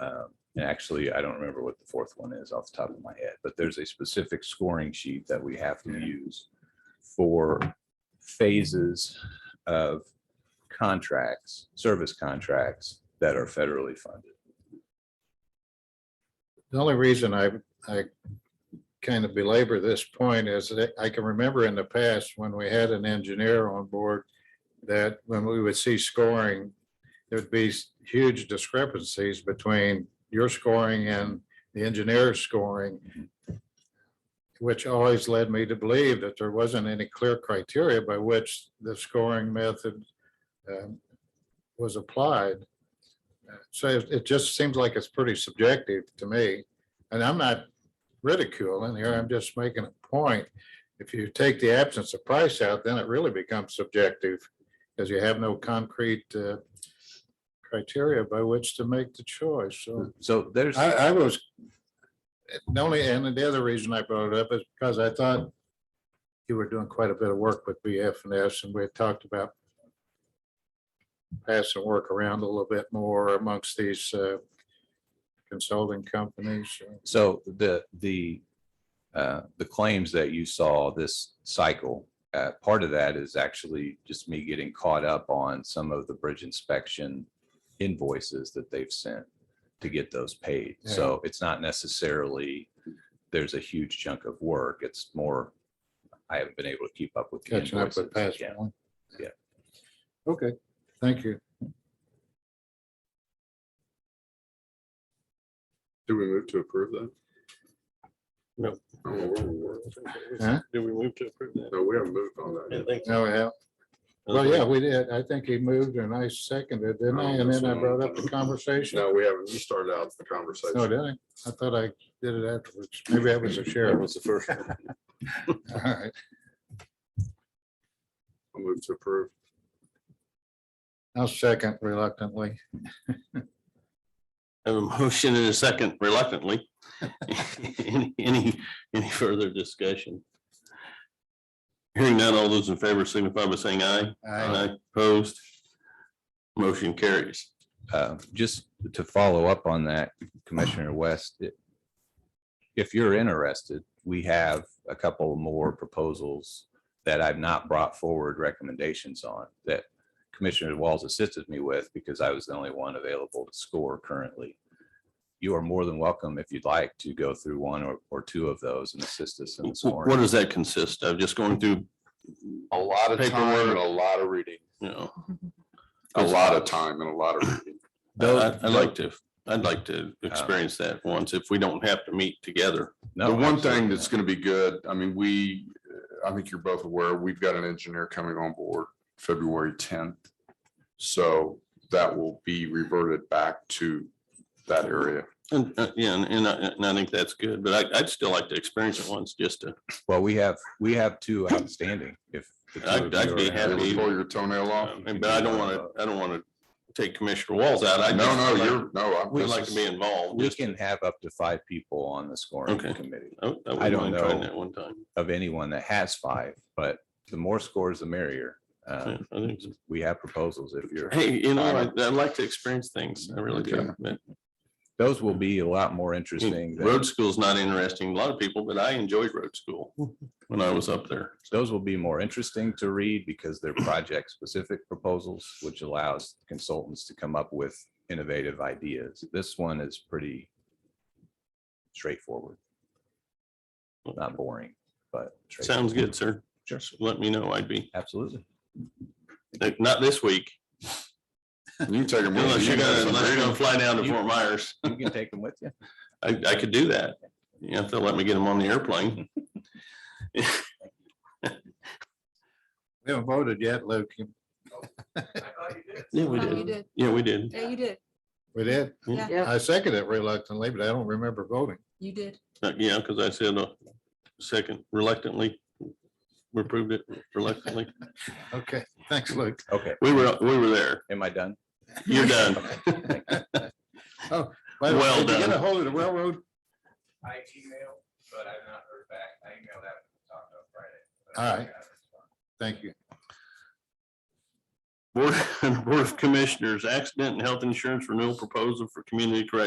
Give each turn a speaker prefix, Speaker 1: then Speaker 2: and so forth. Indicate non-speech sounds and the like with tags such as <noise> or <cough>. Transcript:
Speaker 1: Um, And actually, I don't remember what the fourth one is off the top of my head, but there's a specific scoring sheet that we have to use for phases of contracts, service contracts that are federally funded.
Speaker 2: The only reason I, I kind of belabor this point is that I can remember in the past when we had an engineer on board that when we would see scoring, there'd be s- huge discrepancies between your scoring and the engineer's scoring, which always led me to believe that there wasn't any clear criteria by which the scoring method um, was applied. So it it just seems like it's pretty subjective to me. And I'm not ridiculing here, I'm just making a point. If you take the absence of price out, then it really becomes subjective because you have no concrete uh, criteria by which to make the choice. So
Speaker 1: So there's.
Speaker 2: I, I was, the only, and the other reason I brought it up is because I thought you were doing quite a bit of work with BFNS and we had talked about passing work around a little bit more amongst these uh, consulting companies. uh,
Speaker 1: So the, the, uh, the claims that you saw this cycle, uh, part of that is actually just me getting caught up on some of the bridge inspection invoices that they've sent to get those paid.
Speaker 2: Yeah.
Speaker 1: So it's not necessarily, there's a huge chunk of work. It's more, I haven't been able to keep up with. the
Speaker 2: Catching up with
Speaker 1: invoices.
Speaker 2: past
Speaker 1: Yeah.
Speaker 2: one.
Speaker 1: Yeah.
Speaker 2: Okay, thank you.
Speaker 3: Do we move to approve that?
Speaker 4: No.
Speaker 3: Oh, well, we're- we're-
Speaker 2: Huh?
Speaker 4: Do we move to approve that?
Speaker 3: No, we haven't moved on that.
Speaker 4: I
Speaker 3: yet.
Speaker 4: don't think so.
Speaker 2: No, yeah, well, yeah, we did. I think he moved and I seconded, didn't I? And then I brought up the conversation.
Speaker 3: No, we haven't. You started out the
Speaker 2: No,
Speaker 3: conversation.
Speaker 2: Oh, did I? I thought I did it afterwards. Maybe I was a
Speaker 4: That
Speaker 2: sheriff.
Speaker 4: was the first. one.
Speaker 2: All right.
Speaker 3: I'll move to approve.
Speaker 2: <laughs> I'll second reluctantly.
Speaker 4: I Have a motion and a second reluctantly. Any- Any, any further discussion? Hearing none, all those in favor signify by saying aye.
Speaker 2: Aye.
Speaker 4: Opposed? Motion carries.
Speaker 1: Uh, just to follow up on that, Commissioner West, it- if you're interested, we have a couple more proposals that I've not brought forward recommendations on that Commissioner Walls assisted me with because I was the only one available to score currently. You are more than welcome, if you'd like, to go through one or, or two of those and assist us in
Speaker 4: What
Speaker 1: scoring.
Speaker 4: does that consist of? Just going through,
Speaker 3: A lot
Speaker 4: of time and a
Speaker 3: lot of reading.
Speaker 4: you know,
Speaker 3: A lot of time and a lot of reading.
Speaker 4: I- I'd like to, I'd like to experience that once if we don't have to meet together.
Speaker 1: No,
Speaker 3: The one
Speaker 1: absolutely
Speaker 3: thing that's going to be good, I mean, we, uh, I think you're both aware, we've got an engineer coming on board February tenth. So that will be reverted back to that area.
Speaker 4: And, uh, yeah, and, and I, and I think that's good, but I, I'd still like to experience it once just to,
Speaker 1: not. Well, we have, we have two outstanding if. the two
Speaker 4: I'd-
Speaker 1: of you
Speaker 4: I'd
Speaker 1: are
Speaker 4: be
Speaker 1: interested.
Speaker 4: happy.
Speaker 3: Pull your toenail off.
Speaker 4: I mean, but I don't want to, I don't want to take Commissioner Walls out. I
Speaker 3: No,
Speaker 4: just
Speaker 3: no,
Speaker 4: would like-
Speaker 3: you're, no. I'm-
Speaker 4: We'd
Speaker 3: this
Speaker 4: like to
Speaker 3: is-
Speaker 4: be involved.
Speaker 1: We
Speaker 4: just-
Speaker 1: can have up to five people on the scoring
Speaker 4: Okay.
Speaker 1: committee
Speaker 4: I wouldn't
Speaker 1: I don't
Speaker 4: mind trying
Speaker 1: know.
Speaker 4: That one time.
Speaker 1: of anyone that has five, but the more scores, the merrier. Uh,
Speaker 4: Yeah, I think so.
Speaker 1: We have proposals if you're,
Speaker 4: Hey, you know, I'd,
Speaker 3: Alright.
Speaker 4: I'd like to experience things. I really
Speaker 3: Okay.
Speaker 4: do. But
Speaker 1: those will be a lot more interesting. than-
Speaker 4: Hmm, road school's not interesting to a lot of people, but I enjoyed road school when I was up there.
Speaker 1: Those will be more interesting to read because they're project specific proposals, which allows consultants to come up with innovative ideas. This one is pretty straightforward. Not boring, but. straightforward.
Speaker 4: Sounds good, sir.
Speaker 1: Sure.
Speaker 4: Just Let me know. I'd be,
Speaker 1: Absolutely.
Speaker 4: not this week.
Speaker 3: You can take them. with
Speaker 4: Unless you're gonna,
Speaker 3: Some
Speaker 4: unless you're
Speaker 3: reading.
Speaker 4: gonna fly down to
Speaker 1: You-
Speaker 4: Fort Myers.
Speaker 1: You can take them with you.
Speaker 4: I, I could do that. You have to let me get them on the airplane.
Speaker 2: We haven't voted yet, Luke.
Speaker 4: Yeah, we
Speaker 5: Oh, you
Speaker 4: did. Mm.
Speaker 5: did.
Speaker 4: Um, Yeah, we did.
Speaker 5: Yeah, you did.
Speaker 2: We did.
Speaker 4: Yeah.
Speaker 5: Yeah,
Speaker 2: I seconded reluctantly, but I don't remember voting.
Speaker 5: you did.
Speaker 4: Uh, Yeah, because I said uh second reluctantly. We approved it reluctantly.
Speaker 2: Okay, thanks, Luke.
Speaker 1: Okay,
Speaker 4: We were, we were there.
Speaker 1: am I done?
Speaker 4: You're <laughs> done.
Speaker 2: By the way, Did
Speaker 4: Well
Speaker 2: you
Speaker 4: done.
Speaker 2: get a hold of the railroad?
Speaker 1: I emailed, but I've not heard back. I emailed that talked on Friday.
Speaker 2: All right. Thank you.
Speaker 4: <laughs> Board Board of Commissioners, accident and health insurance renewal proposal for community corrections